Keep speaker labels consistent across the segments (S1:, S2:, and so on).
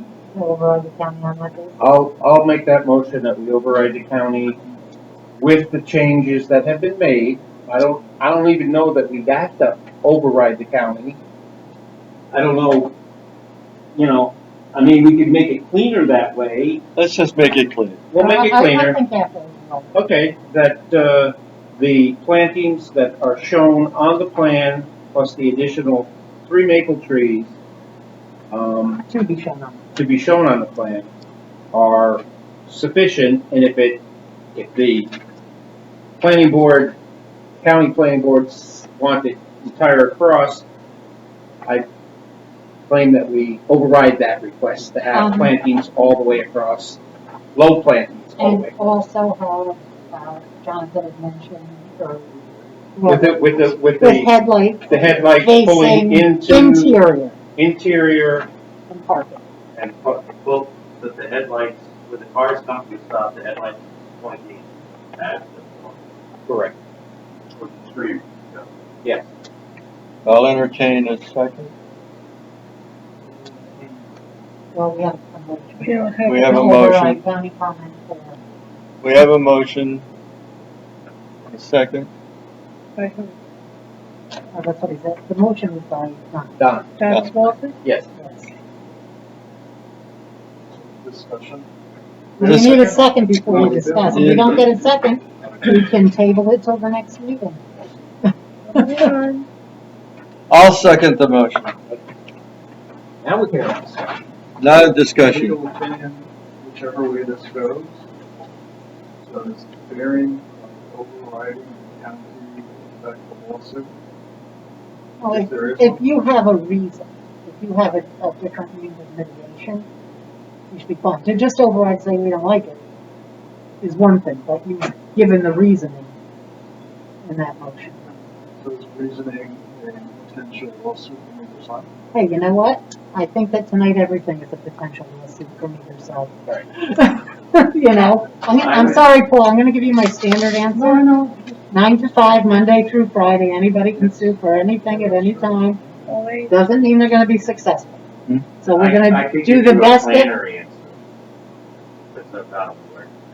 S1: to override the county on that basis?
S2: I'll, I'll make that motion that we override the county with the changes that have been made. I don't, I don't even know that we have to override the county.
S3: I don't know, you know, I mean, we could make it cleaner that way.
S4: Let's just make it clear.
S2: We'll make it
S1: Uh, I- I- I
S2: cleaner.
S1: think that's reasonable.
S2: Okay, that, uh, the plantings that are shown on the plan, plus the additional three maple trees, um,
S1: To be shown on.
S2: to be shown on the plan are sufficient, and if it, if the planning board, county planning boards want it entire across, I claim that we override that request to have
S1: Um.
S2: plantings all the way across, low plantings all the way.
S1: And also have, uh, Jonathan had mentioned, or.
S2: With the, with the, with
S1: With
S2: the,
S1: headlights.
S2: the headlights
S1: facing
S2: pulling into
S1: Interior
S2: interior
S1: and parking.
S2: and,
S5: Well, that the headlights, when the cars come to a stop, the headlights pointing at the,
S2: correct,
S5: towards the street.
S4: I'll entertain a second.
S1: Well, we have a motion.
S4: We have a
S1: To override
S4: motion.
S1: County comment for,
S4: We have a motion. A second.
S1: oh, that's what he said, the motion was by, not,
S2: done,
S4: Travis
S6: Walton?
S2: yes.
S1: yes.
S5: Discussion?
S1: We
S4: Just-
S1: need a second before we discuss, if we don't get a second, we can table it till the next meeting.
S4: I'll second the motion.
S2: Now we can.
S4: Not a discussion.
S7: legal opinion, whichever way this goes. So this bearing, of overriding, county, effect of lawsuit.
S1: Well,
S7: If
S1: if-
S7: there is
S1: If
S7: one.
S1: you have a reason, if you have a, a different means of mitigation, you should be fine. To just override saying we don't like it is one thing, but you've given the reasoning in that motion.
S7: So it's reasoning a potential lawsuit on either side.
S1: Hey, you know what? I think that tonight everything is a potential lawsuit from either side.
S2: Right.
S1: You know, I'm, I'm sorry, Paul, I'm gonna give you my standard answer. Nine to five, Monday through Friday, anybody can sue for anything at any time.
S6: Always.
S1: Doesn't mean they're gonna be successful.
S4: Hmm.
S1: So we're
S5: I- I
S1: gonna
S5: could
S1: do
S5: give
S1: the
S5: you a
S1: best that.
S5: planner answer. That's not how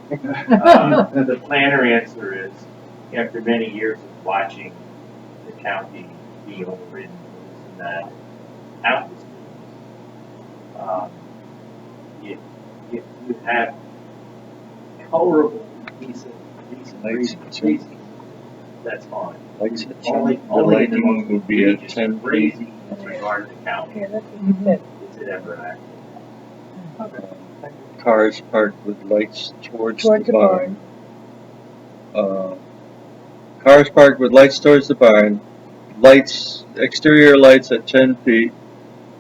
S5: it works. Um, The planner answer is, after many years of watching the county be overridden, this and that, out this business, um, if, if you have colorable decent, decent
S4: Like
S5: reasons,
S4: some-
S5: reasons, that's fine.
S4: Like,
S5: Only,
S4: the
S5: only the
S4: lighting
S5: most
S4: would be at
S5: egregious,
S4: ten feet.
S5: crazy in regard to the county,
S6: Yeah, that's what you said.
S5: is it ever active?
S4: Cars parked with lights towards
S6: Towards
S4: the
S6: the
S4: barn. Uh, Cars parked with lights towards the barn, lights, exterior lights at ten feet.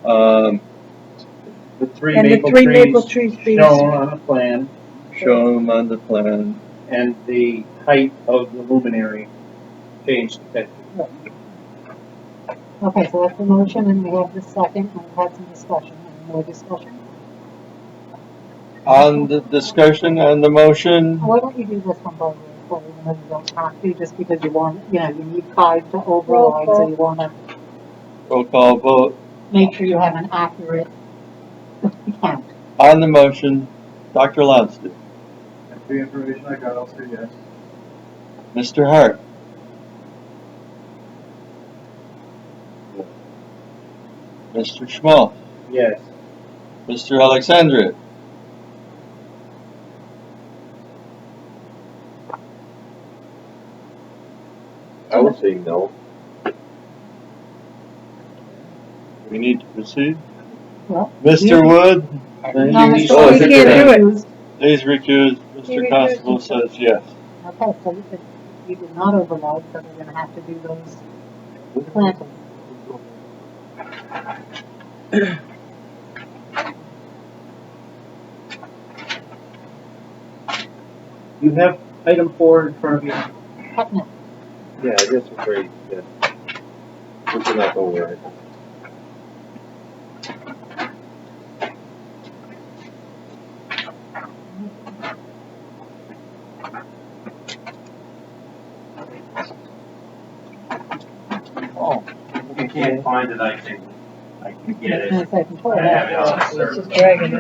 S4: Um,
S2: The three
S6: And the
S2: maple
S6: three maple
S2: trees
S6: trees being
S2: shown on the plan
S4: show them on the plan.
S2: and the height of the luminary changed to ten feet.
S1: Okay, so that's the motion and we have the second and we've had some discussion, Any more discussion.
S4: On the discussion on the motion,
S1: Why don't you do this one by the before we move on to talk to, just because you want, you know, you need five to override, so you wanna
S4: roll call vote.
S1: make sure you have an accurate count.
S4: On the motion, Dr. Lobster,
S7: And the information I got, I'll say yes.
S4: Mr. Hart. Mr. Schmaltz.
S2: Yes.
S4: Mr. Alexandria.
S8: I would say no.
S4: We need to proceed.
S1: Well,
S4: Mr. Wood,
S1: No, Mr.
S6: Oh,
S1: Lee
S6: we can't do it.
S4: please recuse.
S6: You
S4: Mr.
S6: recuse
S4: Constable
S6: yourself.
S4: says yes.
S1: Okay, so you could, you did not override, so we're gonna have to do those plantings.
S2: You have item four in front of you.
S1: Putnam,
S8: Yeah, I guess we're very, yeah. We cannot go over it.
S5: If you can't find it, I can, I can get
S1: that's
S5: it.
S1: my second
S5: I
S1: point.
S5: have it on a
S6: It's
S5: server.
S6: just dragging it.